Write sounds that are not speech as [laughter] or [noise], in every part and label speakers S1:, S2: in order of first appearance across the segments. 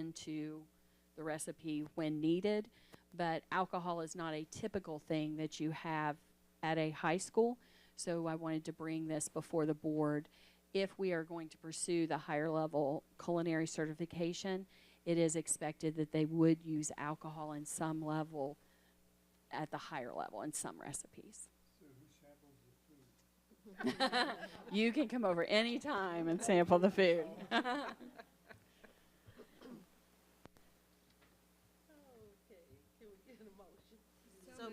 S1: into the recipe when needed. But alcohol is not a typical thing that you have at a high school. So I wanted to bring this before the board. If we are going to pursue the higher level culinary certification, it is expected that they would use alcohol in some level at the higher level in some recipes.
S2: So who samples the food?
S1: You can come over anytime and sample the food. [laughs]
S3: Okay, can we get a motion?
S4: So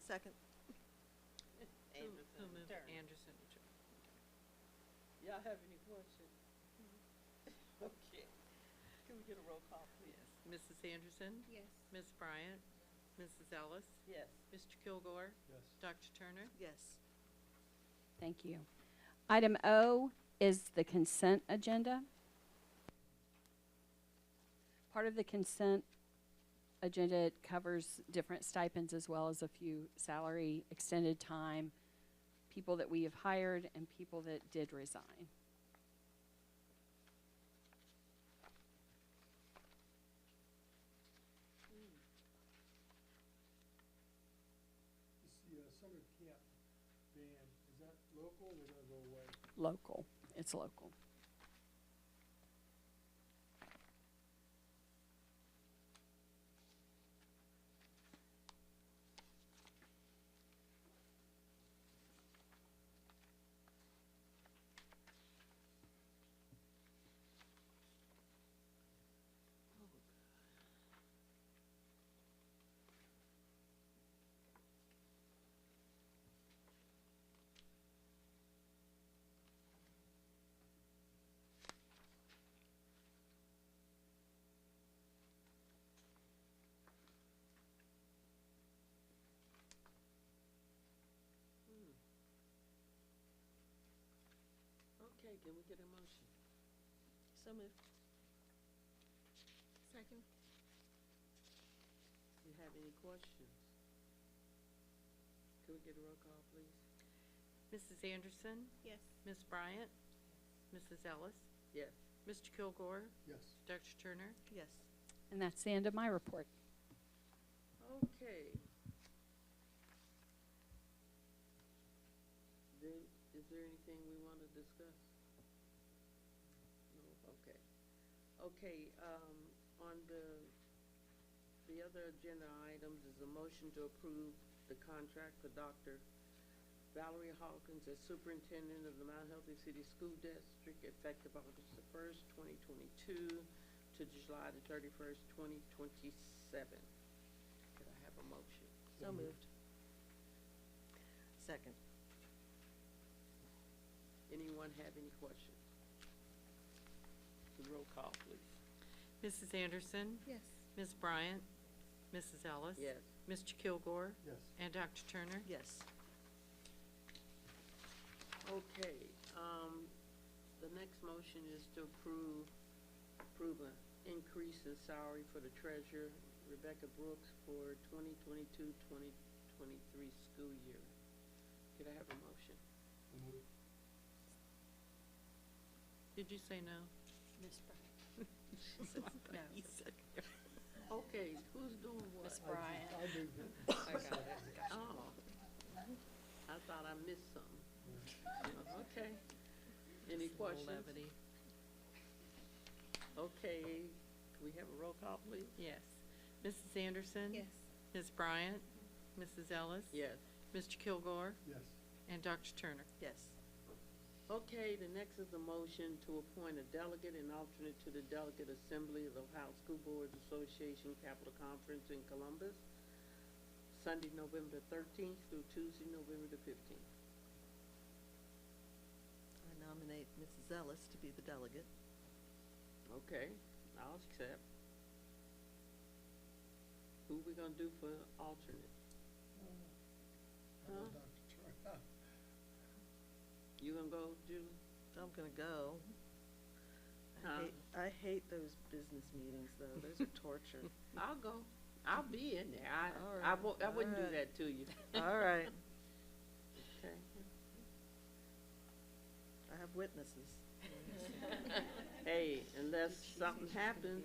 S4: Second.
S3: Anderson, Turner.
S5: Anderson and Turner.
S3: Y'all have any questions? [laughs] Okay, can we get a roll call, please?
S5: Yes. Mrs. Anderson?
S4: Yes.
S5: Ms. Bryant? Mrs. Ellis?
S3: Yes.
S5: Mr. Kilgore?
S2: Yes.
S5: Dr. Turner?
S4: Yes.
S1: Thank you. Item O is the consent agenda. Part of the consent agenda it covers different stipends as well as a few salary, extended time, people that we have hired and people that did resign.
S2: Is the uh, summer camp band, is that local or gonna go away?
S1: Local, it's local.
S3: Hmm. Okay, can we get a motion? So moved.
S4: Second.
S3: Do you have any questions? Can we get a roll call, please?
S5: Mrs. Anderson?
S4: Yes.
S5: Ms. Bryant? Mrs. Ellis?
S3: Yes.
S5: Mr. Kilgore?
S2: Yes.
S5: Dr. Turner?
S4: Yes.
S1: And that's the end of my report.
S3: Okay. Then, is there anything we wanna discuss? No, okay. Okay, um, on the, the other agenda items is a motion to approve the contract for Dr. Valerie Hawkins as superintendent of the Mount Healthy City School District effective August the first, twenty twenty-two to July the thirty-first, twenty twenty-seven. Could I have a motion?
S2: So moved.
S4: Second.
S3: Anyone have any questions? The roll call, please.
S5: Mrs. Anderson?
S4: Yes.
S5: Ms. Bryant? Mrs. Ellis?
S3: Yes.
S5: Mr. Kilgore?
S2: Yes.
S5: And Dr. Turner?
S4: Yes.
S3: Okay, um, the next motion is to approve, approve an increase in salary for the treasurer Rebecca Brooks for 2022-2023 school year. Could I have a motion?
S2: So moved.
S5: Did you say no?
S1: Ms. Bryant.
S5: No. You said
S3: Okay, who's doing what?
S1: Ms. Bryant.
S2: I moved it.
S3: Oh, I thought I missed something. Okay. Any questions?
S5: Levity.
S3: Okay, can we have a roll call, please?
S5: Yes. Mrs. Anderson?
S4: Yes.
S5: Ms. Bryant? Mrs. Ellis?
S3: Yes.
S5: Mr. Kilgore?
S2: Yes.
S5: And Dr. Turner?
S4: Yes.
S3: Okay, the next is a motion to appoint a delegate and alternate to the Delegate Assembly of the Ohio School Boards Association Capital Conference in Columbus, Sunday, November thirteenth through Tuesday, November the fifteenth.
S4: I nominate Mrs. Ellis to be the delegate.
S3: Okay, I'll accept. Who we gonna do for alternate?
S2: I
S3: Huh?
S2: know Dr. Turner.
S3: You gonna go, Julie?
S4: I'm gonna go.
S3: Huh?
S4: I hate, I hate those business meetings, though. Those
S3: [laughs]
S4: are torture.
S3: I'll go. I'll be in there.
S4: All
S3: I, I
S4: right,
S3: won't, I
S4: all
S3: wouldn't do
S4: right.
S3: that to you.
S4: All right,
S3: [laughs] Okay.
S4: I have witnesses.
S3: [laughs] Hey, unless something happens,